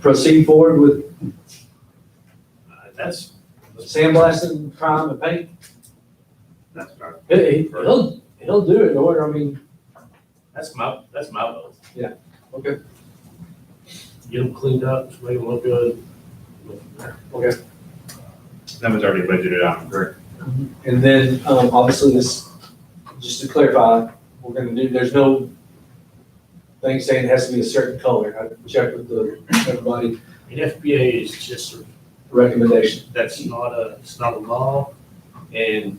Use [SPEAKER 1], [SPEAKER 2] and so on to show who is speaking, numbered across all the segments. [SPEAKER 1] proceed forward with
[SPEAKER 2] Uh, That's,
[SPEAKER 1] sandblasting, prime and paint.
[SPEAKER 2] that's my,
[SPEAKER 1] He- he- He'll, he'll do it, or, I mean,
[SPEAKER 2] that's my, that's my vote.
[SPEAKER 1] okay,
[SPEAKER 2] Get them cleaned up, just make them look good.
[SPEAKER 1] okay.
[SPEAKER 3] That was already budgeted out, correct?
[SPEAKER 1] And then, um, obviously this, just to clarify, we're gonna do, there's no thing saying it has to be a certain color. I checked with the, everybody,
[SPEAKER 2] And FBA is just, a-
[SPEAKER 1] recommendation.
[SPEAKER 2] that's not a, it's not a law, and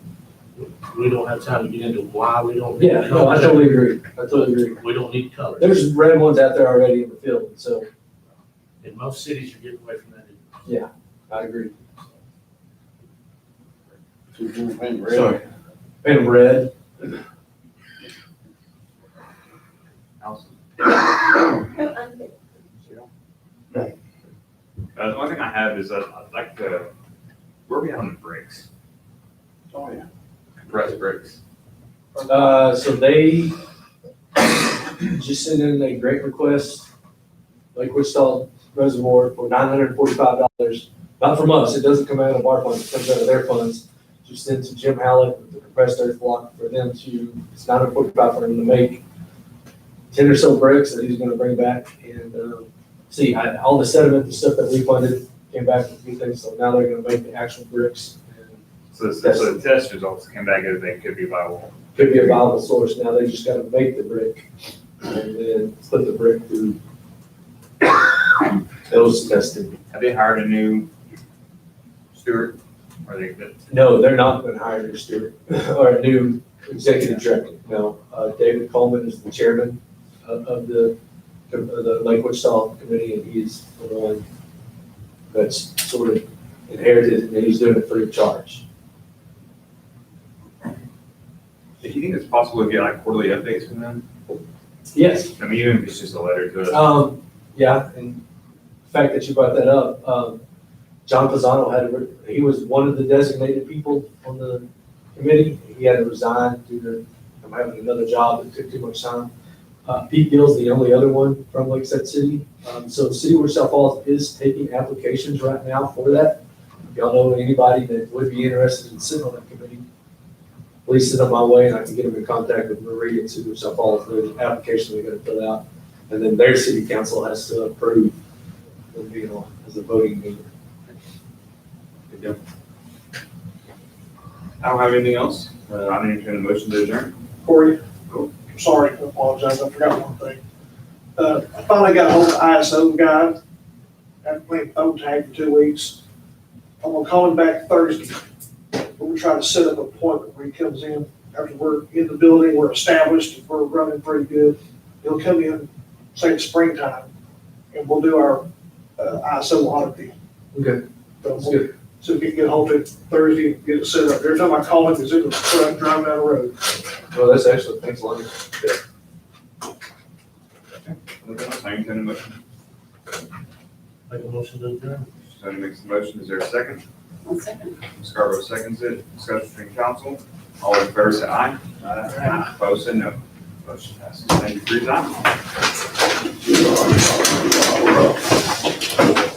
[SPEAKER 2] we don't have time to get into why we don't. need
[SPEAKER 1] Yeah, no, I totally agree, I totally agree.
[SPEAKER 2] We don't need colors.
[SPEAKER 1] There's red ones out there already in the field, so
[SPEAKER 2] And most cities are getting away from that.
[SPEAKER 1] I agree.
[SPEAKER 4] Sorry.
[SPEAKER 1] Sorry. Paint them red,
[SPEAKER 5] No, I'm good.
[SPEAKER 3] Uh, the only thing I have is, uh, I'd like to, where are we at on the brakes?
[SPEAKER 4] Oh, yeah.
[SPEAKER 3] Compressed brakes?
[SPEAKER 1] uh, so they just sent in a great request, like Wichita Reservoir for nine hundred and forty-five dollars. Not from us, it doesn't come out of our funds, it comes out of their funds, just sent to Jim Hallett, with the compressed earth block for them to, it's nine hundred and forty-five for him to make ten or so bricks that he's gonna bring back and, um, see, I, all the sediment, and stuff that we funded came back with these things, so now they're gonna make the actual bricks. and
[SPEAKER 3] So, so so the test results came back as they could be viable.
[SPEAKER 1] could be a viable source. Now they just gotta make the brick and then put the brick through those testing.
[SPEAKER 3] Have they hired a new steward? Are they, that-
[SPEAKER 1] No, they're not gonna hire a new steward or a new executive director. No, uh, David Coleman is the chairman of, of the, of the Lake Wichita Committee and he's the one that's sort of inherited and he's doing it free of charge.
[SPEAKER 3] do you think it's possible to get like quarterly updates from them?
[SPEAKER 1] Yes,
[SPEAKER 3] I mean, even if it's just a letter to us.
[SPEAKER 1] Um, yeah, and the fact that you brought that up, um, John Pizzano had, a- he was one of the designated people on the committee. He had to resign due to him having another job that took too much time. Uh, Pete Gill's the only other one from Lakeside City. Um, so the City of Wichita Falls is taking applications right now for that. If y'all know anybody that would be interested in sitting on that committee, please send them my way and I can get them in contact with Marie at City of Wichita Falls. There's an application they're gonna fill out. And then their city council has to approve the deal as a voting member.
[SPEAKER 3] I don't have anything else. Uh, I'm entertaining a motion to adjourn.
[SPEAKER 4] Corey, I'm Oh, sorry, I apologize, I forgot one thing. Uh, I finally got hold of the ISO guy, I've played phone tag for two weeks. I'm gonna call him back Thursday, we're trying to set up an appointment where he comes in, after we're in the building, we're established, we're running pretty good. He'll come in, say it's springtime, and we'll do our, uh, ISO audit then.
[SPEAKER 1] Okay.
[SPEAKER 4] So
[SPEAKER 1] That's
[SPEAKER 4] we'll-
[SPEAKER 1] good.
[SPEAKER 4] So if you can get hold of it Thursday, and get it set up. Every time I call him, he's in the truck driving down the road.
[SPEAKER 1] Well, that's excellent. Thanks, Lonnie.
[SPEAKER 3] Anything else? I entertain a motion.
[SPEAKER 2] Make a motion to adjourn.
[SPEAKER 3] Tony makes the motion. Is there a second?
[SPEAKER 5] One second.
[SPEAKER 3] Scarborough seconds it. Discussion between council. All in favor, say aye. Aye. Opposed, say no. Motion passes. Thank you for your time.